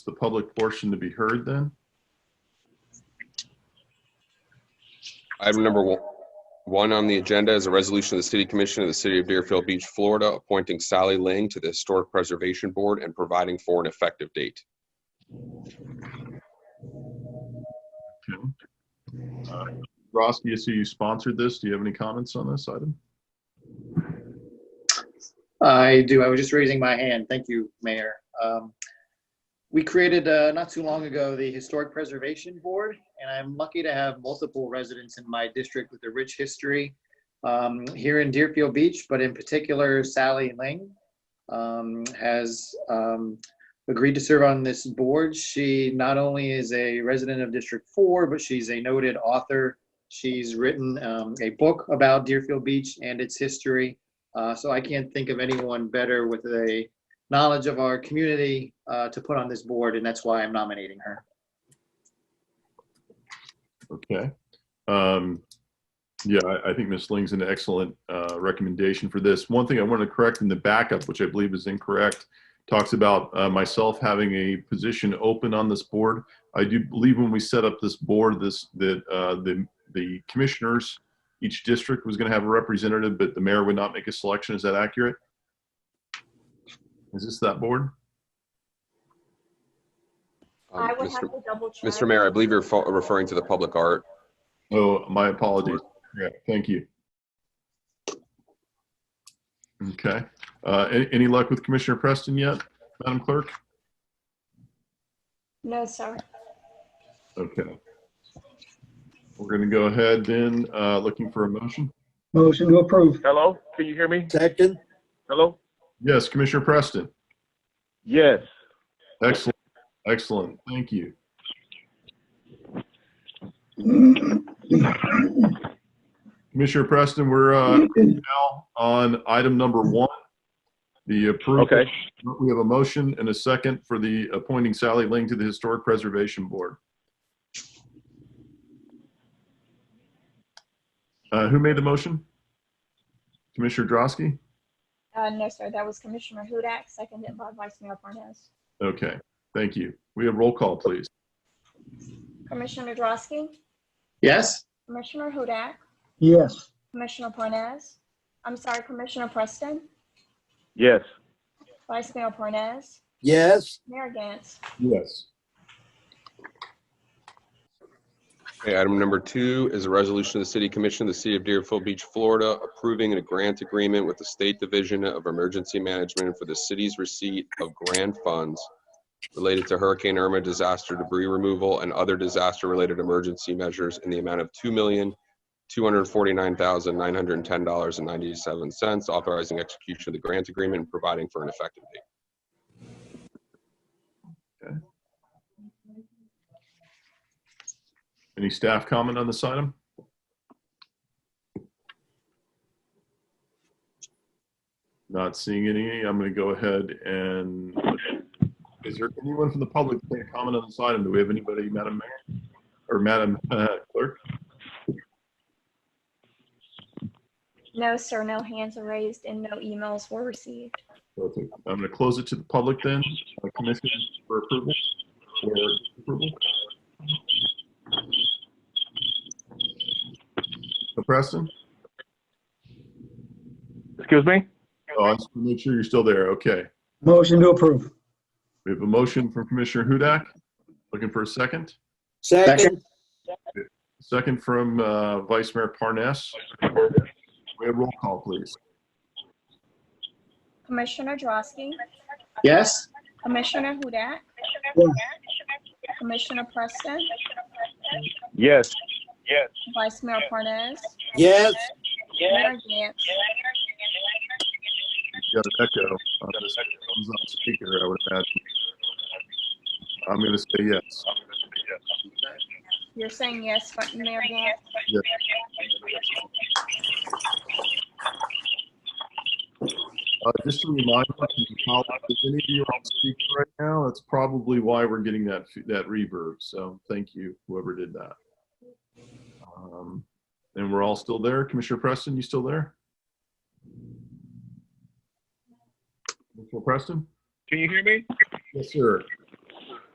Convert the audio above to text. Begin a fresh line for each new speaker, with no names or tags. Is the public portion to be heard then?
Item number one- one on the agenda is a resolution of the City Commission of the City of Deerfield Beach, Florida, appointing Sally Ling to the Historic Preservation Board and providing for an effective date.
Okay. Uh, Roski, I see you sponsored this. Do you have any comments on this item?
I do. I was just raising my hand. Thank you, Mayor. Um, We created, uh, not too long ago, the Historic Preservation Board, and I'm lucky to have multiple residents in my district with a rich history um, here in Deerfield Beach, but in particular Sally Ling um, has um, agreed to serve on this board. She not only is a resident of District 4, but she's a noted author. She's written um, a book about Deerfield Beach and its history. Uh, so I can't think of anyone better with a knowledge of our community uh, to put on this board, and that's why I'm nominating her.
Okay. Um, Yeah, I- I think Ms. Ling's an excellent uh, recommendation for this. One thing I wanted to correct in the backup, which I believe is incorrect, talks about uh, myself having a position open on this board. I do believe when we set up this board, this, that uh, the the commissioners, each district was going to have a representative, but the mayor would not make a selection. Is that accurate? Is this that board?
Um,
I would have
Mr.
to double check.
Mr. Mayor, I believe you're fo- referring to the public art.
Oh, my apologies. Yeah, thank you. Okay. Uh, a- Any luck with Commissioner Preston yet, Madam Clerk?
No, sir.
Okay. We're going to go ahead then, uh, looking for a motion.
Motion to approve.
Hello, can you hear me?
Second.
Hello?
Yes, Commissioner Preston.
Yes.
Excellent. Excellent. Thank you. Commissioner Preston, we're uh, now on item number one, the approval.
Okay,
We have a motion and a second for the appointing Sally Ling to the Historic Preservation Board. Uh, Who made the motion? Commissioner Drosky?
Uh, no, sir. That was Commissioner Hudak, seconded by Vice Mayor Parnas.
Okay, thank you. We have roll call, please.
Commissioner Drosky,
Yes?
Commissioner Hudak,
Yes.
Commissioner Parnas. I'm sorry, Commissioner Preston,
yes.
Vice Mayor Parnas,
Yes.
Mayor Gantz.
Yes.
Okay, item number two is a resolution of the City Commission of the City of Deerfield Beach, Florida, approving a grant agreement with the State Division of Emergency Management for the city's receipt of grant funds related to Hurricane Irma disaster debris removal and other disaster-related emergency measures in the amount of two million, two hundred forty-nine thousand, nine hundred and ten dollars and ninety-seven cents, authorizing execution of the grant agreement and providing for an effective date.
Any staff comment on this item? Not seeing any. I'm going to go ahead and, is there anyone from the public that can comment on this item? Do we have anybody, Madam Mayor? Or Madam uh, Clerk?
No, sir. No hands are raised and no emails were received.
Perfect. I'm going to close it to the public then. Uh, Commission for approval? For approval? So Preston?
Excuse me?
Oh, I just want to make sure you're still there. Okay.
Motion to approve.
We have a motion from Commissioner Hudak. Looking for a second.
Second.
Second from uh, Vice Mayor Parnas. We have roll call, please.
Commissioner Drosky,
Yes?
Commissioner Hudak,
Yes.
Commissioner Preston,
Yes. Yes.
Vice Mayor Parnas,
Yes.
Mayor Gantz.
Got an echo on this thumbs up speaker, I would imagine. I'm going to say yes.
You're saying yes, but Mayor Gantz?
Yes. Uh, Just a reminder, to colleagues, if any of you are on speaker right now, that's probably why we're getting that, that reverb. So thank you, whoever did that. Um, And we're all still there. Commissioner Preston, you still there? Commissioner Preston?
Can you hear me?
Yes, sir.